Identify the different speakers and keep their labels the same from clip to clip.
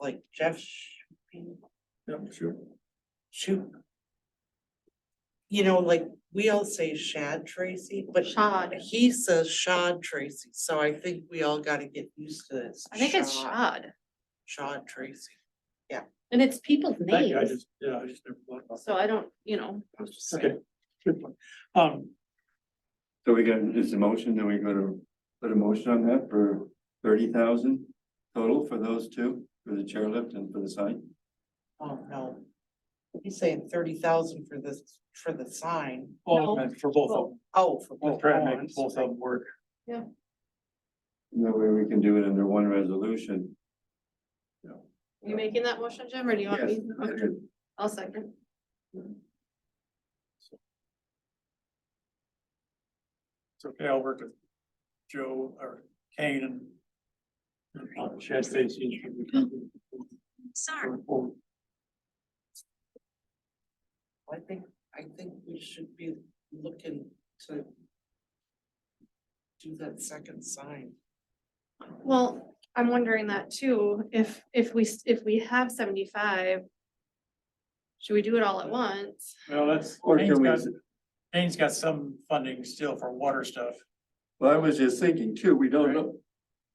Speaker 1: like Jeff
Speaker 2: Yeah, sure.
Speaker 1: Shoot. You know, like, we all say Shad Tracy, but
Speaker 3: Shod.
Speaker 1: he says Shad Tracy, so I think we all gotta get used to this.
Speaker 3: I think it's shod,
Speaker 1: Shad Tracy.
Speaker 3: and it's people's
Speaker 2: Thank you, I
Speaker 3: names,
Speaker 2: just, yeah, I just never thought about
Speaker 3: so I don't, you know,
Speaker 2: that. Okay, good point. Um,
Speaker 4: So we got, it's a motion, then we go to put a motion on that for thirty thousand total for those two, for the chairlift and for the sign.
Speaker 1: Oh, no. He's saying thirty thousand for this, for the sign.
Speaker 2: all meant for both of them,
Speaker 1: Oh, for
Speaker 2: we'll
Speaker 1: both.
Speaker 2: try to
Speaker 1: oh,
Speaker 2: make
Speaker 1: I'm
Speaker 2: both of
Speaker 1: sorry.
Speaker 2: them work.
Speaker 4: And That way we can do it under one resolution.
Speaker 3: you making that motion, Jim, or do you want
Speaker 4: Yes,
Speaker 3: me? Okay, I'll second.
Speaker 2: It's okay, I'll work with Joe or Kane and. and uh, Chad Stacy.
Speaker 3: Sorry.
Speaker 1: I think, I think we should be looking to. Do that second sign.
Speaker 3: Well, I'm wondering that too, if, if we, s- if we have seventy-five, should we do it all at once?
Speaker 2: Well, that's,
Speaker 4: Or
Speaker 2: Kane's
Speaker 4: can we,
Speaker 2: got, Kane's got some funding still for water stuff.
Speaker 4: well, I was just thinking too, we don't know,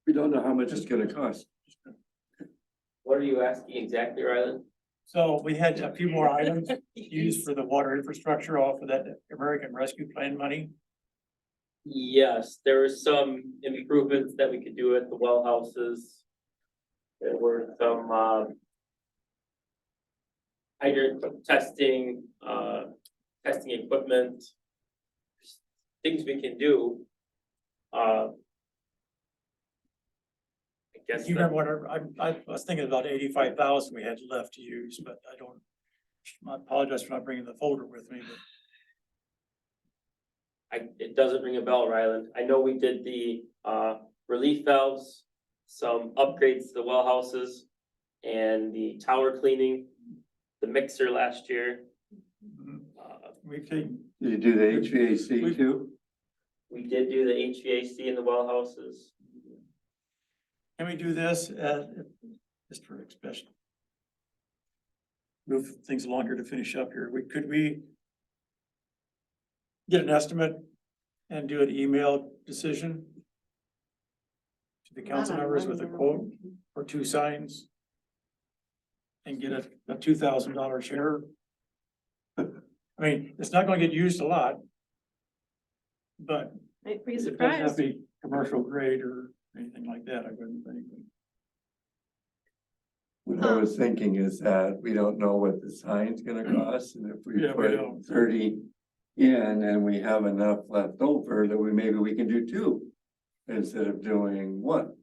Speaker 4: we don't know how much it's gonna cost.
Speaker 5: What are you asking exactly, Rylan?
Speaker 2: So we had a few more items used for the water infrastructure off of that American Rescue Plan money.
Speaker 5: Yes, there were some improvements that we could do at the well houses. There were some, um. Hydrant testing, uh, testing equipment. Things we can do. Uh. I
Speaker 2: Do
Speaker 5: guess.
Speaker 2: you remember what, I- I, I was thinking about eighty-five thousand we had left to use, but I don't. I apologize for not bringing the folder with me, but
Speaker 5: I, it doesn't ring a bell, Ryland. I know we did the, uh, relief valves, some upgrades to the well houses, and the tower cleaning, the mixer last year.
Speaker 2: mhm,
Speaker 5: Uh,
Speaker 2: we've taken,
Speaker 4: Did you do the HVAC
Speaker 2: We-
Speaker 4: too?
Speaker 5: we did do the HVAC in the well houses.
Speaker 2: Can we do this as, just for expression? Move things along here to finish up here. We, could we get an estimate and do an email decision to the council
Speaker 3: Not on
Speaker 2: members with a
Speaker 3: Monday.
Speaker 2: quote or two signs? And get a, a two thousand dollar share? I mean, it's not gonna get used a lot. But
Speaker 3: Might be
Speaker 2: it doesn't have
Speaker 3: surprised.
Speaker 2: to be commercial grade or anything like that, I wouldn't think.
Speaker 4: What I was thinking is that we don't know what the sign's gonna cost, and if we
Speaker 2: Mm. Yeah, we
Speaker 4: put
Speaker 2: don't.
Speaker 4: thirty in and we have enough left over, that we, maybe we can do two instead of doing one.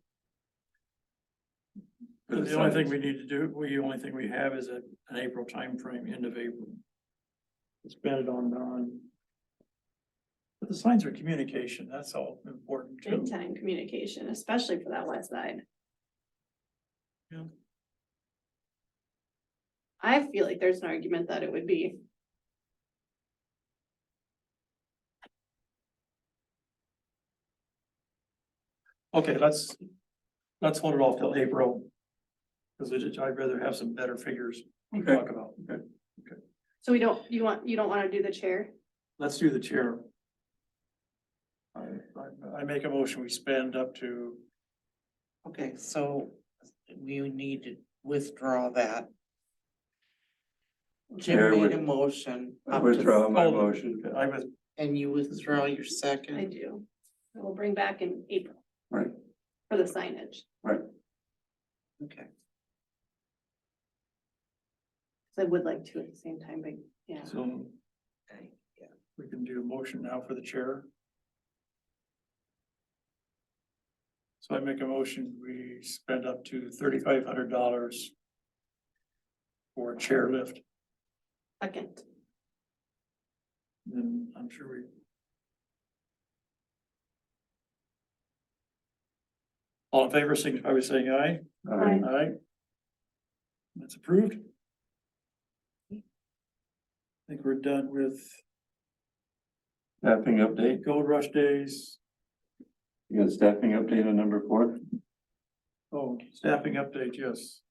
Speaker 4: For
Speaker 2: The only thing
Speaker 4: signs.
Speaker 2: we need to do, we, the only thing we have is a, an April timeframe, end of April. Spend it on, on. But the signs are communication, that's all important too.
Speaker 3: Big time communication, especially for that west side.
Speaker 2: Yeah.
Speaker 3: I feel like there's an argument that it would be.
Speaker 2: Okay, let's, let's hold it off till April. Cause I just- I'd rather have some better figures to
Speaker 4: Okay.
Speaker 2: talk about.
Speaker 3: So we don't, you want, you don't wanna do the chair?
Speaker 2: Let's do the chair. I, I, I make a motion, we spend up to,
Speaker 1: Okay, so we need to withdraw that.
Speaker 4: Chair
Speaker 1: Jim
Speaker 4: would-
Speaker 1: made a motion.
Speaker 4: I
Speaker 1: up to-
Speaker 4: withdraw my
Speaker 2: Oh, the-
Speaker 4: motion.
Speaker 2: I was,
Speaker 1: And you withdraw your
Speaker 3: I
Speaker 1: second.
Speaker 3: do. I will bring back in April.
Speaker 4: Right.
Speaker 3: For the signage,
Speaker 1: Okay,
Speaker 3: 'cause I would like to at the same time, but yeah.
Speaker 2: so
Speaker 1: okay, yeah.
Speaker 2: we can do a motion now for the chair. So I make a motion, we spend up to thirty-five hundred dollars for a chair lift,
Speaker 3: Second,
Speaker 2: then I'm sure we all in favor, signify by saying aye.
Speaker 3: Aye.
Speaker 2: Aye. That's approved. I think we're done with
Speaker 4: Staffing update,
Speaker 2: Gold Rush Days,
Speaker 4: you got a staffing update on number four?
Speaker 2: oh, staffing update, yes.